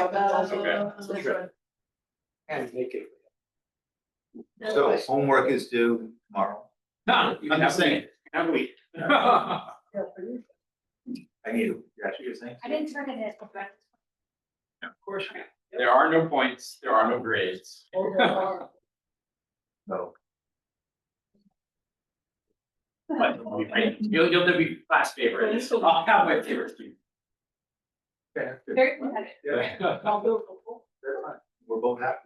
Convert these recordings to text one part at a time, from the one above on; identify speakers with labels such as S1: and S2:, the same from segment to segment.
S1: also.
S2: Okay.
S1: uh,
S3: That's
S1: right.
S3: And make it.
S1: That's
S4: So
S1: right.
S4: homework is due tomorrow.
S2: No,
S3: I'm just saying, have we? I
S1: Yeah, for you.
S4: I need, yeah, you're saying?
S5: I didn't turn it in, but
S2: Of course. There are no points, there are no grades.
S3: Oh,
S1: Overall,
S4: No.
S2: But you'll be great. You'll, you'll be class favorite, I'll have my favorite student.
S5: very competitive.
S1: I'll do it for full.
S4: We're both happy.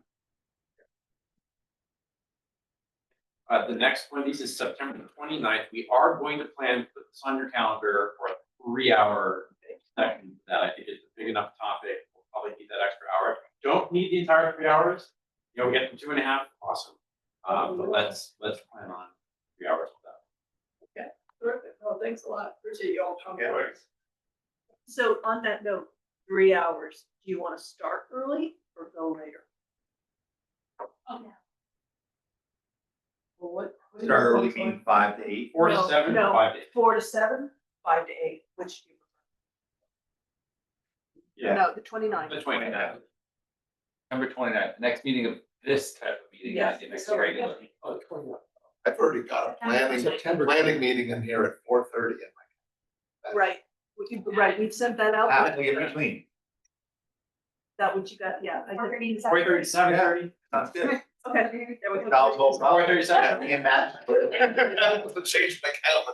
S2: Uh, the next one, this is September 29th. we are going to plan, put this on your calendar for a three-hour session. That I think is a big enough topic, we'll probably need that extra hour. Don't need the entire three hours, you know, get to two and a half, awesome. Uh, but let's, let's plan on three hours of that.
S1: Terrific. Well, thanks a lot. Appreciate you all coming.
S2: Yeah.
S1: So on that note, three hours, do you want to start early or go later?
S5: Oh, no.
S1: Um, Well, what? what do you
S4: Start early,
S1: think?
S4: meeting five to eight.
S2: Four to
S1: No,
S2: seven,
S1: no.
S2: five days.
S1: Four to seven, five to eight, which do you
S4: Yeah.
S1: prefer? No, the twenty nine.
S2: The 29th.
S6: Number twenty ninth, next meeting of this type of meeting,
S1: Yes,
S6: not the next
S1: so-
S6: regular.
S1: Oh,
S7: I've already got a planning,
S3: September.
S7: planning meeting in here at four thirty.
S1: Right, we can, right, we've sent that out,
S4: Half week in between.
S1: that what you got, yeah. I
S5: We're
S1: did.
S5: gonna need
S2: Four thirty, seven thirty?
S4: Sounds good.
S1: Okay, there we
S4: Now,
S1: go.
S4: both.
S2: Four thirty,
S4: Yeah,
S2: seven?
S4: me and Matt.
S7: To change my calendar.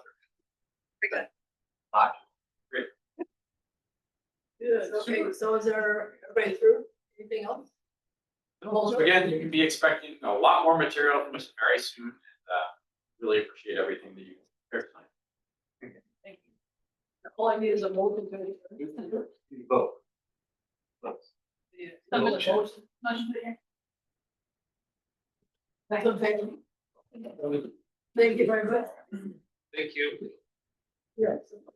S1: Good, okay, so is there, everybody through, anything else?
S2: Again, you can be expecting a lot more material from us very soon, and, uh, really appreciate everything that you.
S1: Thank you. All I need is a motion to.
S4: You Vote.
S1: Yeah.
S5: Motion.
S1: Motion.
S5: Motion to adjourn.
S1: That's okay. Thank you very much.
S6: Thank you.
S1: Yes.